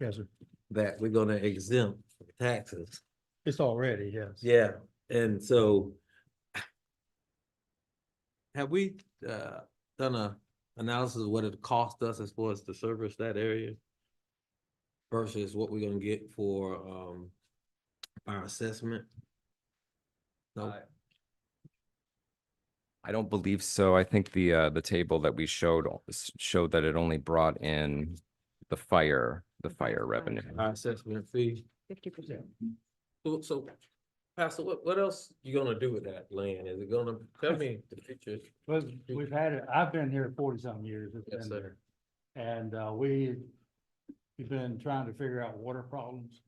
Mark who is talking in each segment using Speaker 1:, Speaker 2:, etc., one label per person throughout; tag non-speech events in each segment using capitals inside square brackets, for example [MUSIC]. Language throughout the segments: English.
Speaker 1: Yes, sir.
Speaker 2: that we're gonna exempt from taxes.
Speaker 1: It's already, yes.
Speaker 2: Yeah, and so. Have we uh done a analysis of what it cost us as far as to service that area? Versus what we're gonna get for um our assessment? No,
Speaker 3: I- I don't believe so. I think the, uh, the table that we showed al- s- showed that it only brought in the fire, the fire revenue.
Speaker 2: our assessment fee.
Speaker 4: Fifty percent.
Speaker 2: So- So, Pastor, what what else you gonna do with that land? Is it gonna, tell me the future?
Speaker 1: But we've had it, I've been here forty something years. it's
Speaker 2: Yes,
Speaker 1: been
Speaker 2: sir.
Speaker 1: there. And uh, we, we've been trying to figure out water problems.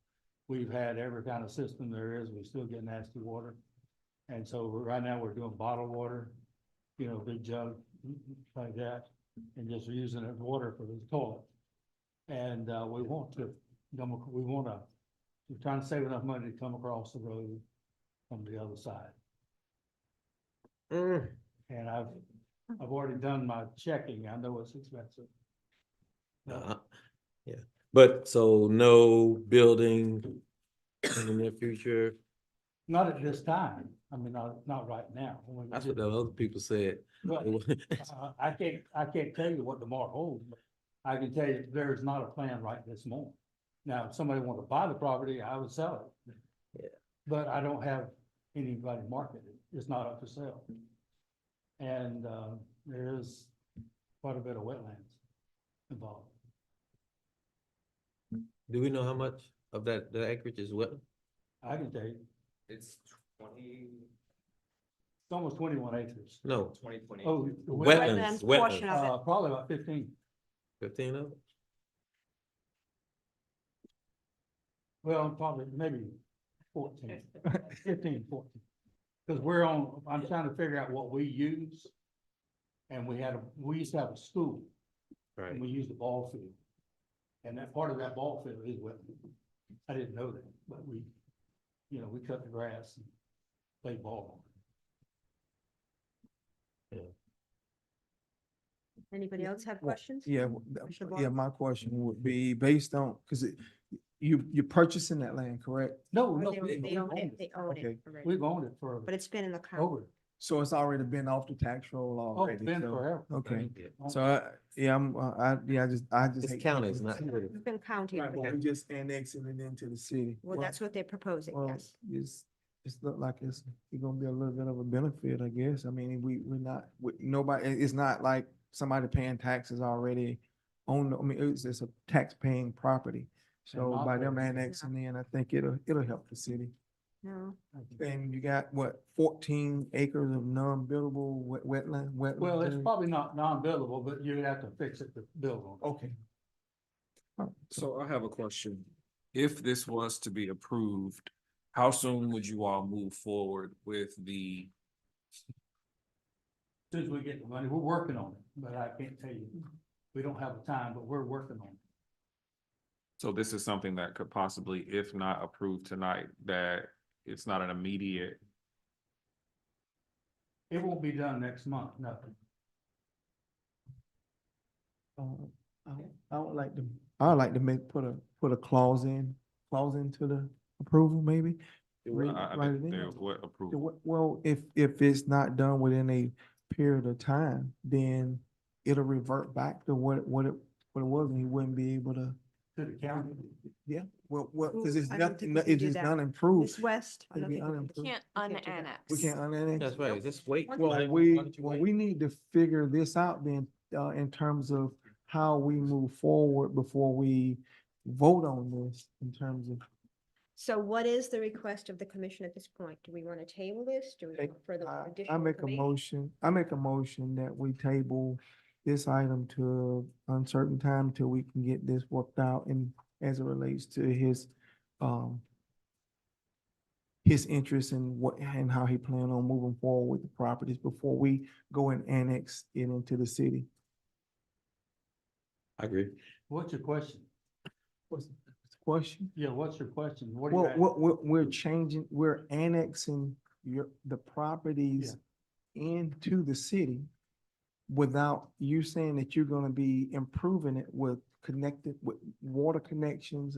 Speaker 1: We've had every kind of system there is, we still get nasty water. And so we're- right now, we're doing bottled water, you know, big jug like that, and just using it water for the toilet. And uh, we want to, come ac- we want to, we're trying to save enough money to come across the road from the other side.
Speaker 2: Mm.
Speaker 1: And I've, I've already done my checking. I know it's expensive.
Speaker 2: Uh, Yeah, but so no building in the near future.
Speaker 1: Not at this time. I mean, not, not right now. When we
Speaker 2: That's
Speaker 1: do-
Speaker 2: what the other people said. [LAUGHS]
Speaker 1: but, uh, I can't, I can't tell you what tomorrow holds, but I can tell you there is not a plan right this moment. Now, if somebody wanted to buy the property, I would sell it.
Speaker 2: Yeah.
Speaker 1: But I don't have anybody market it. It's not up for sale. And, uh, there is quite a bit of wetlands involved.
Speaker 2: Do we know how much of that, the acreage is wet?
Speaker 1: I can tell you,
Speaker 3: It's twenty,
Speaker 1: it's almost twenty-one acres.
Speaker 2: No,
Speaker 3: twenty twenty.
Speaker 1: Oh, the wetland,
Speaker 2: wetlands,
Speaker 4: Wetlands portion
Speaker 2: wetlands,
Speaker 4: of it.
Speaker 1: uh, probably about fifteen.
Speaker 2: fifteen of it?
Speaker 1: Well, probably maybe fourteen, [LAUGHS] fifteen, fourteen. Because we're on, I'm trying to figure out what we use. And we had, a we used to have a school and
Speaker 2: Right.
Speaker 1: we used the ball field. And that part of that ball field is wet. I didn't know that, but we, you know, we cut the grass and played ball.
Speaker 4: Anybody else have
Speaker 5: Well,
Speaker 4: questions?
Speaker 5: Yeah, w- th-
Speaker 4: Mr.
Speaker 5: yeah,
Speaker 4: Barr?
Speaker 5: my question would be based on, because you, you're purchasing that land, correct?
Speaker 1: No,
Speaker 4: Or
Speaker 1: no,
Speaker 4: they-
Speaker 1: we-
Speaker 4: They
Speaker 1: we've
Speaker 4: own
Speaker 1: owned
Speaker 4: it,
Speaker 1: it.
Speaker 4: they own it
Speaker 5: Okay. Oh,
Speaker 4: already.
Speaker 1: We've owned it for
Speaker 4: But it's been in the county.
Speaker 1: over,
Speaker 5: So it's already been off the tax roll
Speaker 1: oh,
Speaker 5: already?
Speaker 1: it's been
Speaker 5: so-
Speaker 1: forever.
Speaker 5: Okay,
Speaker 2: Yeah.
Speaker 5: so I, yeah, I'm, uh, I, yeah, I just, I just.
Speaker 2: It's
Speaker 5: hate
Speaker 2: county, it's
Speaker 5: taking
Speaker 2: not-
Speaker 5: it to-
Speaker 4: It's been counted.
Speaker 5: [LAUGHS] Right, but we just annexing it into the city.
Speaker 4: Well, that's what they're proposing,
Speaker 5: Well,
Speaker 4: yes.
Speaker 5: It's, it's look like it's, it's gonna be a little bit of a benefit, I guess. I mean, we, we're not, we, nobody, it- it's not like somebody paying taxes already on, the- I mean, it's, it's a tax-paying property. So by them
Speaker 1: operating.
Speaker 5: annexing in, I think it'll, it'll help the city.
Speaker 4: No,
Speaker 5: And you got what, fourteen acres of non-buildable wet, wetland, wetland?
Speaker 1: Well, it's
Speaker 5: area?
Speaker 1: probably not non-buildable, but you'd have to fix it to build on it.
Speaker 5: Okay. Oh, So,
Speaker 6: So I have a question. If this was to be approved, how soon would you all move forward with the,
Speaker 1: Soon as we get the money, we're working on it, but I can't tell you, we don't have a time, but we're working on it.
Speaker 6: so this is something that could possibly, if not approved tonight, that it's not an immediate,
Speaker 1: It won't be done next month, nothing.
Speaker 5: uh, I, I would like to, I would like to make, put a, put a clause in, clause into the approval maybe?
Speaker 6: I,
Speaker 5: Read-
Speaker 6: uh, I
Speaker 5: write it
Speaker 6: think
Speaker 5: in.
Speaker 6: they're what
Speaker 5: Yeah,
Speaker 6: approved.
Speaker 5: we- Well, if, if it's not done within a period of time, then it'll revert back to what, it- what it, what it was, and he wouldn't be able to.
Speaker 1: To the county.
Speaker 5: Yeah, well, well,
Speaker 4: Ooh,
Speaker 5: cause it's
Speaker 4: I don't
Speaker 5: nothing,
Speaker 4: think we can
Speaker 5: it's
Speaker 4: do
Speaker 5: just
Speaker 4: that.
Speaker 5: not improved.
Speaker 4: Miss West. I
Speaker 5: It'd
Speaker 4: don't
Speaker 5: be
Speaker 4: think we can-
Speaker 5: unimproved.
Speaker 7: Can't
Speaker 4: We can't do that.
Speaker 7: unannex.
Speaker 5: We can't unannex.
Speaker 2: That's right, just wait.
Speaker 5: Well, we, well, we need to figure this out then, uh, in terms of how we move forward before we vote on this in terms of.
Speaker 4: So what is the request of the commission at this point? Do we want to table this? Do we
Speaker 5: Take-
Speaker 4: want further
Speaker 5: I-
Speaker 4: additional?
Speaker 5: I make a
Speaker 4: information?
Speaker 5: motion, I make a motion that we table this item to uncertain time till we can get this worked out and as it relates to his, um, his interest in what, and how he plan on moving forward with the properties before we go and annex it into the city.
Speaker 2: I agree.
Speaker 1: What's your question?
Speaker 5: What's the question?
Speaker 1: Yeah, what's your question? What
Speaker 5: Well,
Speaker 1: are you
Speaker 5: we're, we're, we're changing, we're annexing your, the properties into the city without you saying that you're gonna be improving it with connected with water connections